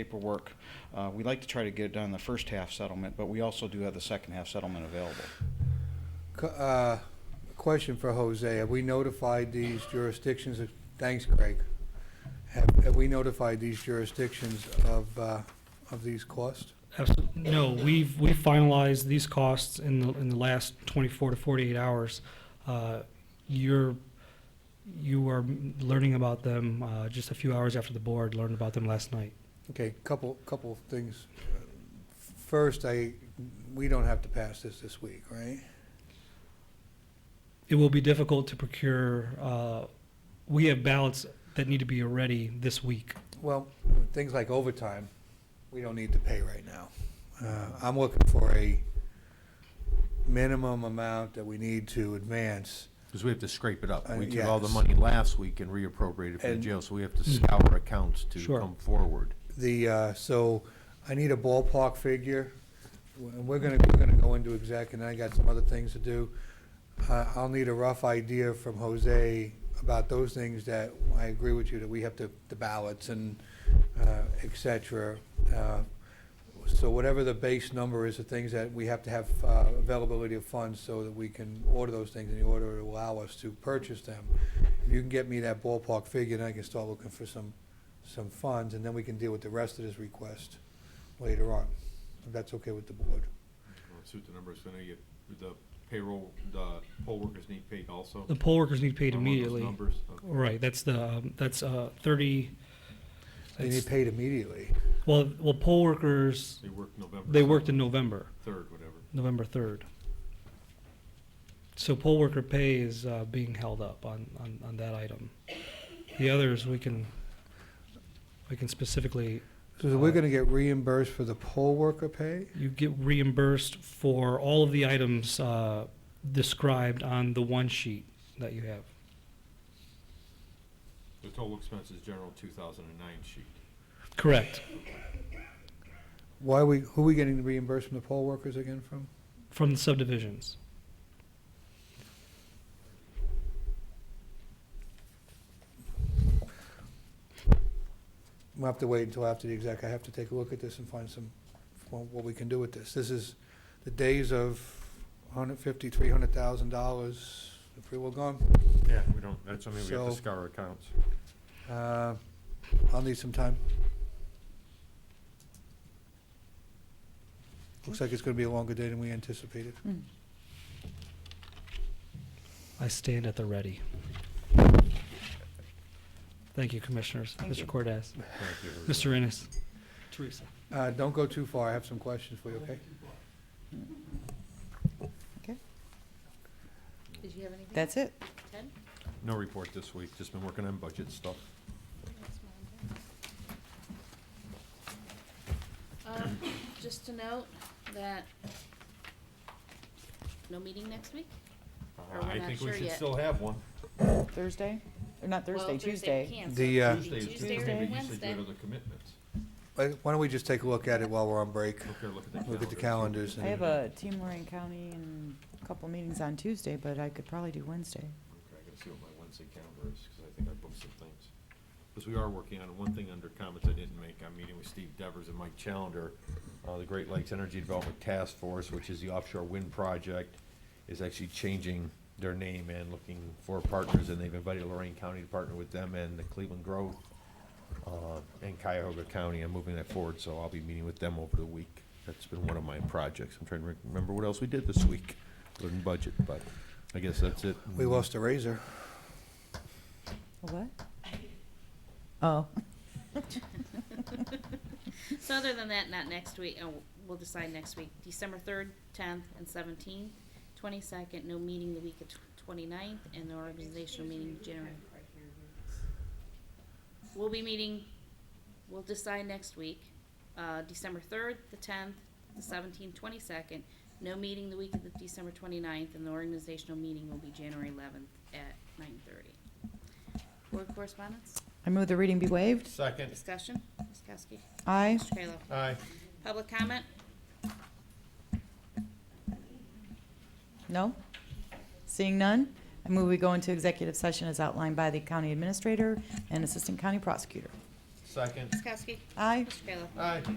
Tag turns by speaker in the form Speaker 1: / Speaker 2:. Speaker 1: paperwork. Uh, We like to try to get it done in the first half settlement, but we also do have the second half settlement available.
Speaker 2: Co- uh, Question for Jose. Have we notified these jurisdictions, of- thanks Craig. Have have we notified these jurisdictions of, uh, of these costs?
Speaker 3: Absolutely. No, we've, we finalized these costs in the, in the last 24 to 48 hours. Uh, You're, you are learning about them uh, just a few hours after the board learned about them last night.
Speaker 2: Okay, couple, couple of things. First, I, we don't have to pass this this week, right?
Speaker 3: It will be difficult to procure, uh, we have ballots that need to be ready this week.
Speaker 2: Well, things like overtime, we don't need to pay right now. Uh, I'm looking for a minimum amount that we need to advance.
Speaker 4: Because we have to scrape it up.
Speaker 2: Uh,
Speaker 4: We took all the
Speaker 2: yes.
Speaker 4: money last week and reappropriated it for the
Speaker 2: And-
Speaker 4: jail, so we have to scour accounts to
Speaker 3: Sure.
Speaker 4: come forward.
Speaker 2: The, uh, so I need a ballpark figure. And We're gonna, we're gonna go into exec, and I got some other things to do. Uh, I'll need a rough idea from Jose about those things that, I agree with you, that we have to, the ballots and, uh, et cetera. Uh, So whatever the base number is, the things that we have to have, uh, availability of funds so that we can order those things in the order to allow us to purchase them. If you can get me that ballpark figure, then I can start looking for some, some funds, and then we can deal with the rest of this request later on, if that's okay with the board.
Speaker 5: Well, Suit the numbers, I know you, the payroll, the poll workers need paid also.
Speaker 3: The poll workers need paid
Speaker 5: Along those
Speaker 3: immediately.
Speaker 5: Numbers, okay.
Speaker 3: Right, that's the, um, that's uh, 30,
Speaker 2: They need
Speaker 3: that's-
Speaker 2: paid immediately.
Speaker 3: well, well, poll workers,
Speaker 5: they worked November.
Speaker 3: they worked in November.
Speaker 5: Third, whatever.
Speaker 3: November 3rd. So poll worker pay is uh, being held up on, on, on that item. The others, we can, we can specifically,
Speaker 2: So we're gonna get reimbursed for the poll worker pay?
Speaker 3: you get reimbursed for all of the items uh, described on the one sheet that you have.
Speaker 5: The total expenses general two thousand and nine sheet.
Speaker 3: Correct.
Speaker 2: Why we, who are we getting reimbursed from the poll workers again from?
Speaker 3: From the subdivisions.
Speaker 2: We'll have to wait until after the exec, I have to take a look at this and find some, what what we can do with this. This is the days of hundred fifty, three hundred thousand dollars, if we were gone.
Speaker 4: Yeah, we don't, that's something
Speaker 2: we have to So-
Speaker 4: scour accounts.
Speaker 2: Uh, I'll need some time. Looks like it's gonna be a longer day than we anticipated.
Speaker 3: I stand at the ready. Thank you, Commissioners. Mr. Cordes. Mr. Ennis. Teresa.
Speaker 2: Uh, Don't go too far, I have some questions for you, okay?
Speaker 6: Did you have anything?
Speaker 7: That's it.
Speaker 6: Ten?
Speaker 4: No report this week, just been working on budget stuff.
Speaker 6: Um, Just to note that no meeting next week? Or we're
Speaker 5: I
Speaker 6: not
Speaker 5: think
Speaker 6: sure
Speaker 5: we should
Speaker 6: yet.
Speaker 5: still have one.
Speaker 7: Thursday? Or not
Speaker 6: Well,
Speaker 7: Thursday,
Speaker 6: we
Speaker 7: Tuesday.
Speaker 6: can't, so
Speaker 2: The,
Speaker 6: it's
Speaker 2: uh,
Speaker 6: gonna be
Speaker 5: Tuesday, is
Speaker 6: Tuesday
Speaker 5: Tuesday,
Speaker 6: or
Speaker 5: maybe you said you
Speaker 6: Wednesday.
Speaker 5: had other commitments.
Speaker 2: Why why don't we just take a look at it while we're on break?
Speaker 5: Look there, look at the
Speaker 2: Look at the
Speaker 5: calendar.
Speaker 2: calendars.
Speaker 7: I
Speaker 2: and-
Speaker 7: have a team Lorraine County and a couple meetings on Tuesday, but I could probably do Wednesday.
Speaker 5: Okay, I gotta see what my Wednesday calendar is, because I think I booked some things. Because we are working on one thing under comments I didn't make, I'm meeting with Steve Devers and Mike Challenger, uh, the Great Lakes Energy Development Task Force, which is the offshore wind project, is actually changing their name and looking for partners, and they've invited Lorraine County to partner with them and the Cleveland Grove, uh, and Cuyahoga County, I'm moving that forward, so I'll be meeting with them over the week. That's been one of my projects, I'm trying to remember what else we did this week, other than budget, but I guess that's it.
Speaker 2: We lost a razor.
Speaker 7: A What? Oh,
Speaker 6: So other than that, not next week, and we'll decide next week, December third, tenth, and seventeenth, twenty-second, no meeting the week of tw- twenty-ninth, and no organizational meeting in January. We'll be meeting, we'll decide next week, uh, December third, the tenth, the seventeenth, twenty-second, no meeting the week of the December twenty-ninth, and the organizational meeting will be January eleventh at nine-thirty. Board correspondence,
Speaker 7: I move the reading be waived.
Speaker 4: Second,
Speaker 6: discussion, Ms. Kowski,
Speaker 7: Aye.
Speaker 6: Mr. Kayla.
Speaker 4: aye.
Speaker 6: Public comment?
Speaker 7: No? Seeing none, I move we go into executive session as outlined by the county administrator and assistant county prosecutor.
Speaker 5: Second.
Speaker 6: Ms. Kowski?
Speaker 8: Aye.
Speaker 6: Mr. Kayla?
Speaker 5: Aye.